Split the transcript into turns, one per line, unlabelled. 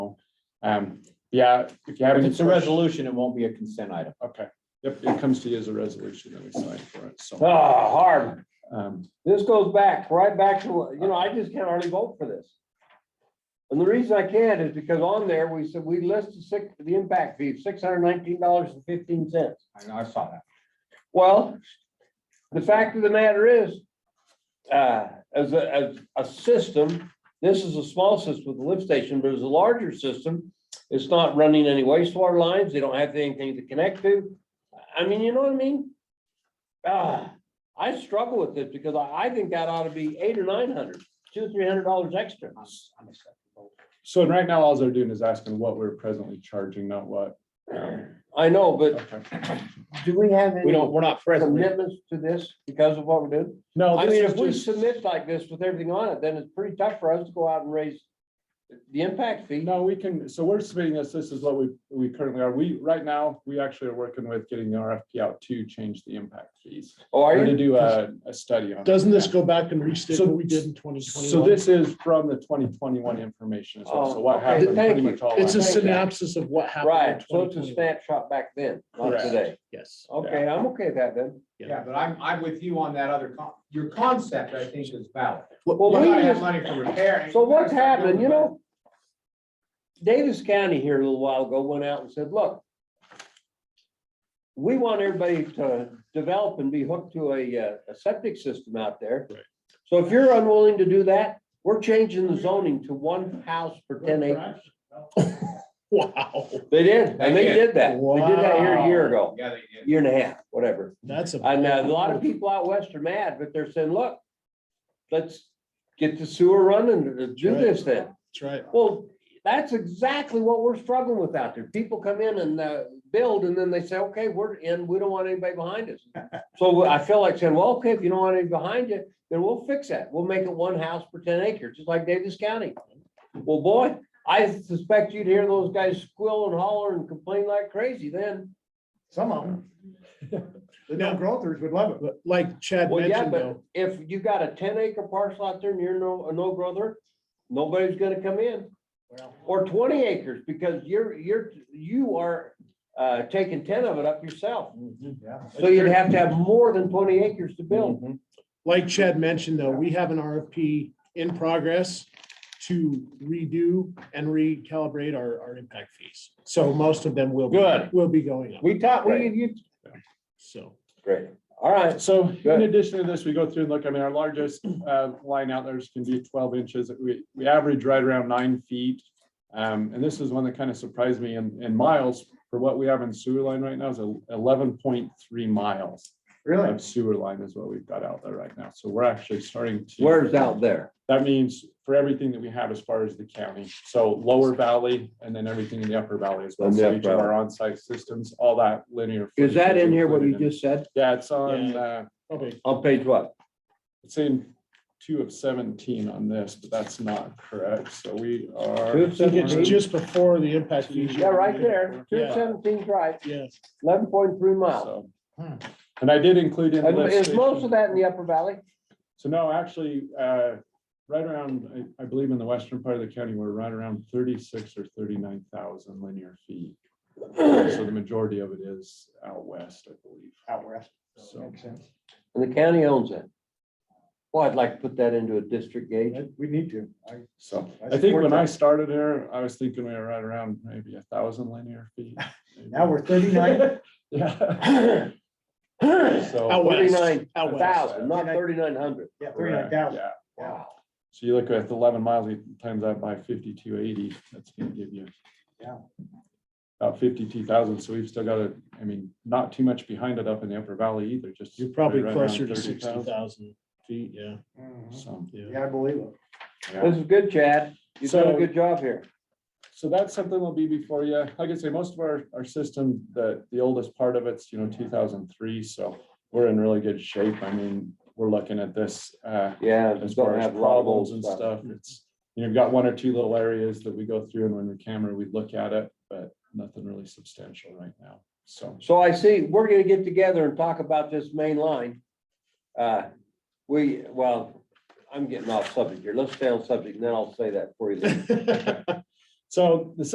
Um, yeah, if you have
If
any.
it's a
questions-
resolution, it won't be a consent item.
Okay, yep, it comes to you as a resolution that we sign for it, so.
Oh, hard.
um,
This goes back, right back to, you know, I just can't hardly vote for this. And the reason I can't is because on there, we said, we listed six, the impact fee, six hundred nineteen dollars and fifteen cents.
I saw that.
Well, the fact of the matter is, uh, as a, as a system, this is a small system with the lift station, but as a larger system, it's not running any wastewater lines. They don't have anything to connect to. I mean, you know what I mean? Ah, I struggle with this because I, I think that ought to be eight or nine hundred, two, three hundred dollars extra.
So right now, all they're doing is asking what we're presently charging, not what. um,
I know, but
okay.
do we have
We
any
don't, we're not presently.
commitments to this because of what we're doing?
No.
I
this
mean,
is
if we
just-
submit like this with everything on it, then it's pretty tough for us to go out and raise the impact fee.
No, we can, so we're submitting this, this is what we, we currently are. We, right now, we actually are working with getting the RFP out to change the impact fees.
Oh, are
Or to
you?
do a, a study on. it.
Doesn't this
Yeah.
go back and restate
So-
what we did in twenty
So
twenty-one?
this is from the twenty twenty-one information. as well. So
Oh,
what
okay.
happened,
Thank
pretty
you.
much all.
It's a
happened.
synopsis of what happened
Right,
in
so
twenty
it's a
twenty-one.
snapshot back then, not
Correct.
today.
Yes.
Okay, I'm okay with that then.
Yeah, but I'm, I'm with you on that other con, your concept, I think, is valid.
Well,
You
we
gotta have
just,
money for repair.
so what's happening, you know? Davis County here a little while ago went out and said, look, we want everybody to develop and be hooked to a, uh, a septic system out there.
Right.
So if you're unwilling to do that, we're changing the zoning to one house per ten acres.
Wow,
They did, and they
They did.
did that. They did that here a year ago,
Yeah, they did.
year and a half, whatever.
that's a.
And uh, a lot of people out west are mad, but they're saying, look, let's get the sewer running and do this then.
That's right.
Well, that's exactly what we're struggling with out there. People come in and uh, build and then they say, okay, we're in, we don't want anybody behind us. So I feel like saying, well, okay, if you don't want any behind you, then we'll fix that. We'll make it one house per ten acres, just like Davis County. Well, boy, I suspect you'd hear those guys squeal and holler and complain like crazy then.
Some of them. The no growthers would love it.
But like Chad
Well, yeah,
mentioned
but
though,
if you've got a ten acre parcel out there and you're no, a no brother, nobody's gonna come in. Or twenty acres, because you're, you're, you are, uh, taking ten of it up yourself.
Yeah.
So you'd have to have more than twenty acres to
Mm-hmm.
build.
like Chad mentioned though, we have an RFP in progress to redo and recalibrate our, our impact fees. So most of them will. be-
Good.
Will be going up,
We taught, we,
Right.
you.
so.
Great. All right,
So in
Good.
addition to this, we go through and look, I mean, our largest uh, line out there is can be twelve inches. We, we average right around nine feet. Um, And this is one that kind of surprised me in, in miles for what we have in sewer line right now is eleven point three miles
Really?
of sewer line is what we've got out there right now. So we're actually starting to.
where's out there?
That means for everything that we have as far as the county, so lower valley and then everything in the upper valley as well.
And the
So
upper
each of our onsite systems, all that linear.
Is
footage
that in here what
included
you
in-
just said?
Yeah, it's on,
Yeah.
uh,
Probably,
On page what?
it's in two of seventeen on this, but that's not correct. So we
Two
are,
of
I think it's
seventeen?
just before the impact fees.
Yeah, right there, two
Yeah,
seventeen's right,
yeah.
eleven point three miles.
so. Hmm. And I did include in. the
And Is
list-
most of that in the upper valley?
So no, actually, uh, right around, I, I believe in the western part of the county, we're right around thirty-six or thirty-nine thousand linear feet. So the majority of it is out west, I believe.
Out west.
So-
Makes sense.
And the county owns it. Well, I'd like to put that into a district gauge.
We need to. I-
So I
That's
think when
important.
I started here, I was thinking we were right around maybe a thousand linear feet. maybe.
Now we're thirty-nine.
Yeah,
Out
so.
west,
Thirty-nine
out west.
thousand, not thirty-nine hundred.
Yeah, thirty-nine
correct,
thousand.
yeah. So you look at eleven miles, you times that by fifty-two eighty, that's gonna give you.
Yeah.
About fifty-two thousand, so we've still got a, I mean, not too much behind it up in the upper valley either, just.
You're probably
right around
closer to
30,000.
sixty thousand feet, yeah,
So,
yeah.
Mm-hmm. Yeah, I believe it.
yeah.
This is good, Chad. You've done a
So-
good job here.
So that's something will be before you, like I say, most of our, our system, the, the oldest part of it's, you know, two thousand three, so we're in really good shape, I mean, we're looking at this, uh,
Yeah,
as
just
far
don't
as
have lobbles
problems and stuff, it's, you know, we've got one or two little areas that we go through and when we camera, we look at it, but nothing really substantial right now, so.
So I see, we're gonna get together and talk about this main line. Uh, we, well, I'm getting off subject here. Let's stay on subject, and then I'll say that for you. leave.
So the